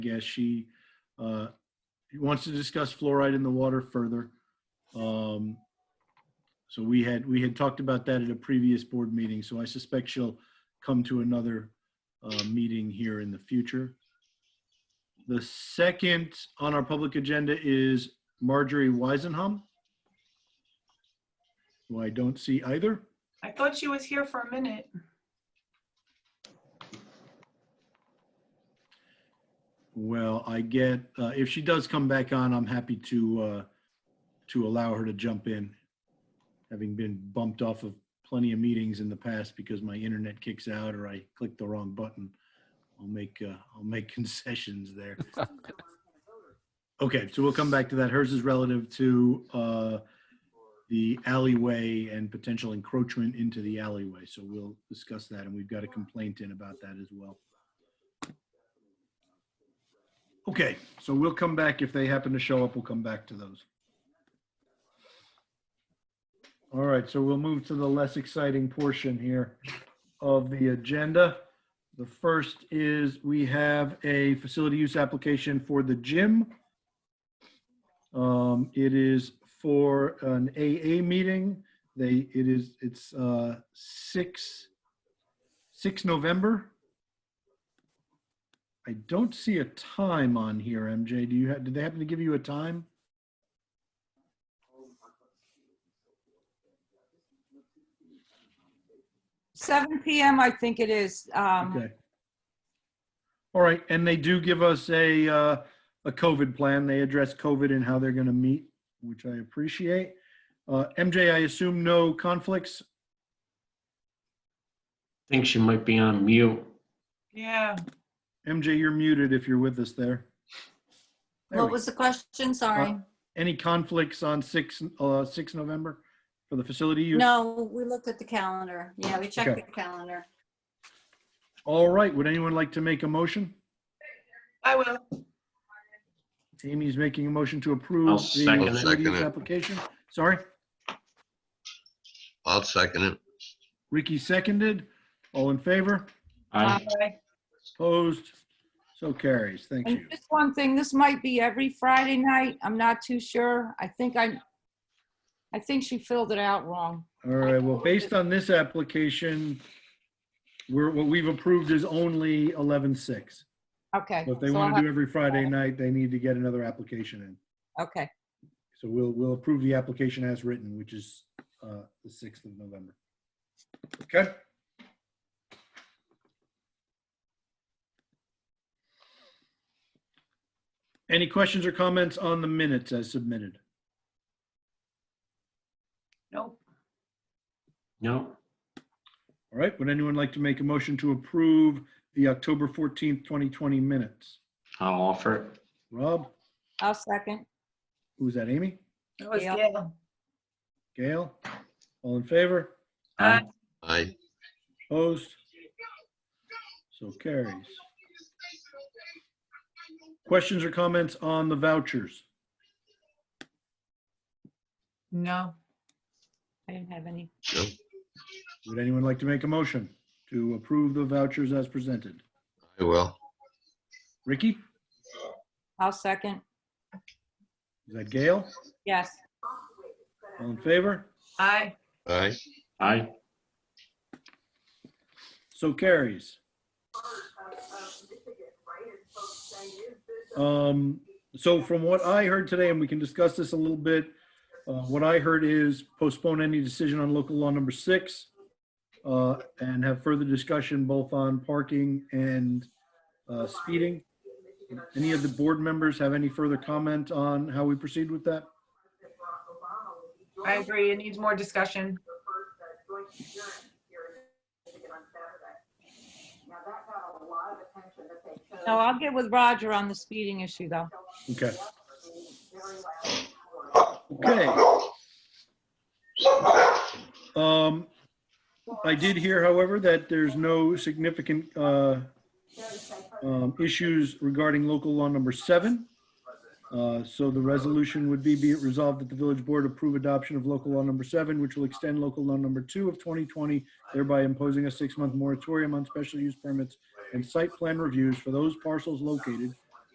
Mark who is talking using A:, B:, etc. A: guess she uh, wants to discuss fluoride in the water further. Um, So we had, we had talked about that at a previous board meeting, so I suspect she'll come to another uh, meeting here in the future. The second on our public agenda is Marjorie Weisenham, who I don't see either.
B: I thought she was here for a minute.
A: Well, I get, uh, if she does come back on, I'm happy to, uh, to allow her to jump in. Having been bumped off of plenty of meetings in the past because my internet kicks out or I click the wrong button. I'll make, uh, I'll make concessions there. Okay, so we'll come back to that. Hers is relative to, uh, the alleyway and potential encroachment into the alleyway. So we'll discuss that and we've got a complaint in about that as well. Okay, so we'll come back. If they happen to show up, we'll come back to those. All right, so we'll move to the less exciting portion here of the agenda. The first is we have a facility use application for the gym. Um, It is for an AA meeting. They, it is, it's uh 6, 6 November. I don't see a time on here, MJ. Do you, ha- did they happen to give you a time?
C: Seven PM, I think it is. Um,
A: Okay. All right, and they do give us a, uh, a COVID plan. They address COVID and how they're going to meet, which I appreciate. Uh, MJ, I assume no conflicts?
D: Think she might be on mute.
B: Yeah,
A: MJ, you're muted if you're with us there. There we
E: What
A: go. Uh,
E: was the question? Sorry.
A: Any conflicts on 6, uh, 6 November for the facility use?
E: No, we looked at the calendar. Yeah, we checked
A: Okay.
E: the calendar.
A: All right, would anyone like to make a motion?
B: I will.
A: Amy's making a motion to approve
D: I'll
A: the
D: second
F: it.
A: facility use
F: Second it.
A: application. Sorry,
F: I'll second it.
A: Ricky seconded. All in favor?
D: I,
B: Bye.
A: Opposed? So carries. Thank
C: and
A: you.
C: just one thing, this might be every Friday night. I'm not too sure. I think I, I think she filled it out wrong.
A: All right, well, based on this application, we're, what we've approved is only 11-6.
C: Okay.
A: So If they
C: so I'll
A: want to do
C: have-
A: every Friday night, they need to get another application in.
C: Okay,
A: So we'll, we'll approve the application as written, which is uh, the 6th of November. Okay? Any questions or comments on the minutes as submitted?
B: Nope.
D: no,
A: All right, would anyone like to make a motion to approve the October 14th, 2020 minutes?
D: I'll offer it.
A: Rob,
C: I'll second.
A: who's that, Amy?
B: It was
C: Yeah.
B: Gail.
A: Gail? All in favor?
B: Uh,
D: Aye.
F: Aye.
A: Opposed? So carries. Questions or comments on the vouchers?
B: No.
C: I didn't have any.
F: Nope.
A: Would anyone like to make a motion to approve the vouchers as presented?
F: I will.
A: Ricky?
C: I'll second.
A: Is that Gail?
C: Yes.
A: All in favor?
B: Aye.
F: Aye.
D: I,
A: So carries. Um, so from what I heard today, and we can discuss this a little bit, uh, what I heard is postpone any decision on local law number six, uh, and have further discussion both on parking and, uh, speeding. Any of the board members have any further comment on how we proceed with that?
B: I agree. It needs more discussion.
C: No, I'll get with Roger on the speeding issue though.
A: Okay. Okay. Um, I did hear, however, that there's no significant, uh, um, issues regarding local law number seven. Uh, so the resolution would be, be it resolved that the village board approve adoption of local law number seven, which will extend local law number two of 2020, thereby imposing a six-month moratorium on special use permits and site plan reviews for those parcels located